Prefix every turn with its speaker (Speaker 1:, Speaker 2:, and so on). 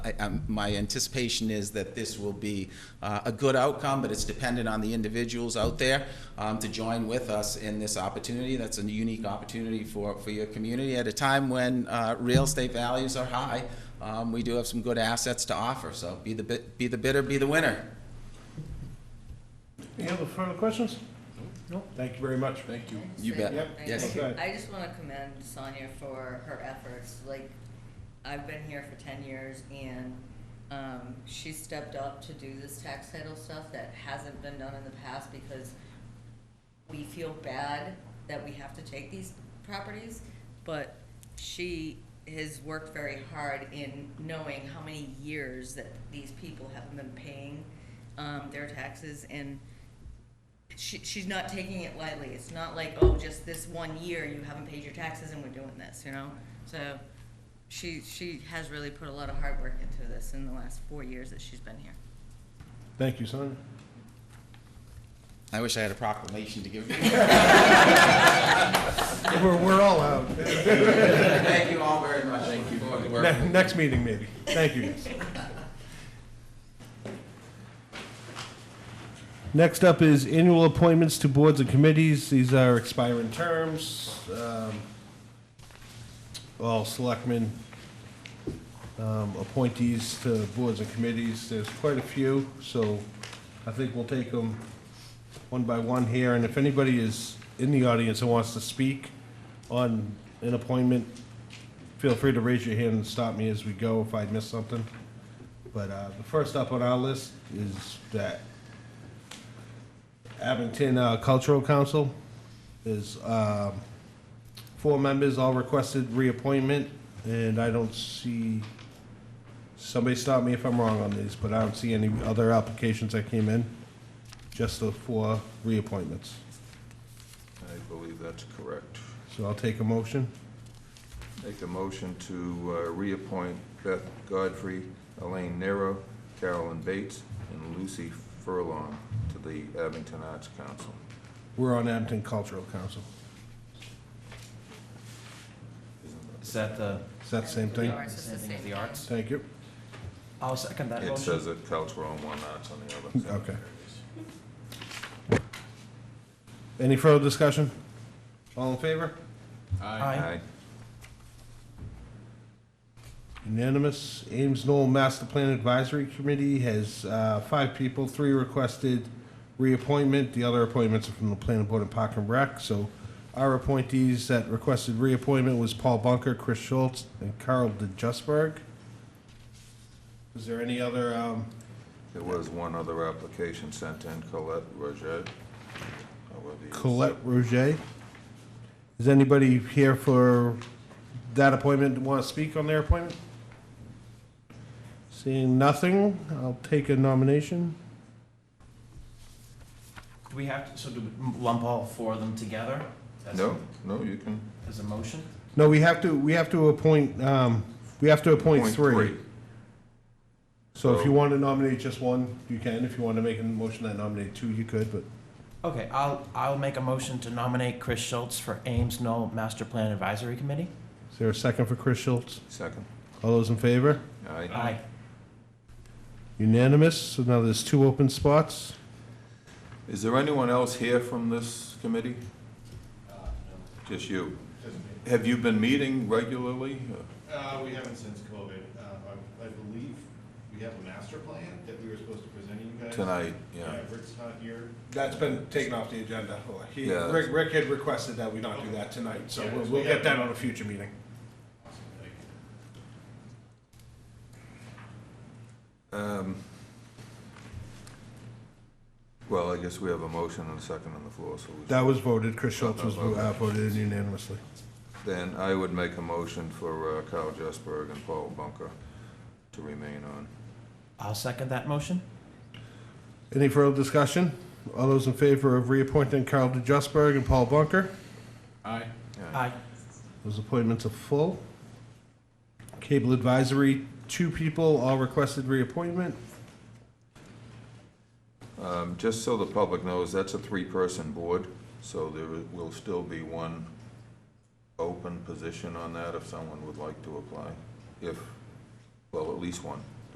Speaker 1: I- um, My anticipation is that this will be uh, a good outcome, but it's dependent on the individuals out there um, to join with us in this opportunity. That's a unique opportunity for, for your community at a time when uh, real estate values are high. Um, We do have some good assets to offer, so be the, bid- be the bidder, be the winner.
Speaker 2: Any other further questions? No, thank you very much. Thank you.
Speaker 1: You bet.
Speaker 2: Yep.
Speaker 1: Yes.
Speaker 2: Okay.
Speaker 3: I just want to commend Sonia for her efforts. Like, I've been here for ten years and, um, she stepped up to do this tax title stuff that hasn't been done in the past because we feel bad that we have to take these properties, but she has worked very hard in knowing how many years that these people haven't been paying, um, their taxes and she, she's not taking it lightly. It's not like, oh, just this one year you haven't paid your taxes and we're doing this, you know? So she, she has really put a lot of hard work into this in the last four years that she's been here.
Speaker 2: Thank you, Sonia.
Speaker 1: I wish I had a proclamation to give you.
Speaker 2: We're, we're all out.
Speaker 1: Thank you all very much. Thank you for the work.
Speaker 2: Ne- Next meeting, maybe. Thank you. Next up is annual appointments to boards and committees. These are expiring terms. Um, All selectmen um, appointees to boards and committees. There's quite a few, so I think we'll take them one by one here. And if anybody is in the audience who wants to speak on an appointment, feel free to raise your hand and stop me as we go if I miss something. But uh, the first up on our list is that Abington uh, Cultural Council is um, four members, all requested reappointment, and I don't see, somebody stop me if I'm wrong on these, but I don't see any other applications that came in, just the four reappointments.
Speaker 4: I believe that's correct.
Speaker 2: So I'll take a motion.
Speaker 4: Make a motion to uh, reappoint Beth Godfrey, Elaine Nero, Carolyn Bates, and Lucy Furlong to the Abington Arts Council.
Speaker 2: We're on Abington Cultural Council.
Speaker 5: Is that uh, the
Speaker 2: Is that the same thing?
Speaker 3: Or it's just the
Speaker 5: same thing as
Speaker 3: same
Speaker 5: the arts?
Speaker 2: Thank you.
Speaker 5: I'll second that
Speaker 4: It
Speaker 5: motion.
Speaker 4: says it cultural on one, arts on the other.
Speaker 2: Okay. Any further discussion? All in favor?
Speaker 5: Aye.
Speaker 2: Unanimous. Ames Knoll Master Plan Advisory Committee has uh, five people, three requested reappointment. The other appointments are from the planning board and Park and Rec. So our appointees that requested reappointment was Paul Bunker, Chris Schultz, and Carl DeJustburg. Is there any other, um,
Speaker 4: There was one other application sent in, Colette Roget. however you-
Speaker 2: Colette Roget? Is anybody here for that appointment, want to speak on their appointment? Seeing nothing, I'll take a nomination.
Speaker 5: Do we have, to? so do we lump all four of them together? as-
Speaker 4: No, no, you can.
Speaker 5: As a motion?
Speaker 2: No, we have to, we have to appoint, um, we have to appoint
Speaker 4: point
Speaker 2: three. So if you
Speaker 4: So-
Speaker 2: want to nominate just one, you can. If you want to make a motion that nominate two, you could, but
Speaker 5: Okay, I'll, I'll make a motion to nominate Chris Schultz for Ames Knoll Master Plan Advisory Committee.
Speaker 2: is there a second for Chris Schultz?
Speaker 4: Second.
Speaker 2: All those in favor?
Speaker 4: Aye.
Speaker 5: Aye.
Speaker 2: Unanimous, so now there's two open spots.
Speaker 4: Is there anyone else here from this committee? Just you? Have you been meeting regularly?
Speaker 6: Uh, we haven't since COVID. Uh, I, I believe we have a master plan that we were supposed to present to you guys.
Speaker 4: Tonight,
Speaker 6: Yeah,
Speaker 4: yeah.
Speaker 6: Rick's not here.
Speaker 2: That's been taken off the agenda. He,
Speaker 4: Yeah.
Speaker 2: Rick, Rick had requested that we not do that tonight, so
Speaker 6: Yeah,
Speaker 2: we'll,
Speaker 6: so
Speaker 2: we'll
Speaker 6: we
Speaker 2: get
Speaker 6: have-
Speaker 2: that on a future meeting.
Speaker 6: Like,
Speaker 4: Um, Well, I guess we have a motion and a second on the floor, so we-
Speaker 2: That was voted, Chris Schultz was vo- uh, voted unanimously.
Speaker 4: then I would make a motion for uh, Kyle Jesberg and Paul Bunker to remain on.
Speaker 5: I'll second that motion.
Speaker 2: Any further discussion? All those in favor of reappointing Carl DeJustburg and Paul Bunker?
Speaker 5: Aye.
Speaker 2: Those appointments are full. Cable Advisory, two people, all requested reappointment.
Speaker 4: Um, Just so the public knows, that's a three-person board, so there will still be one open position on that if someone would like to apply, if well, at least one.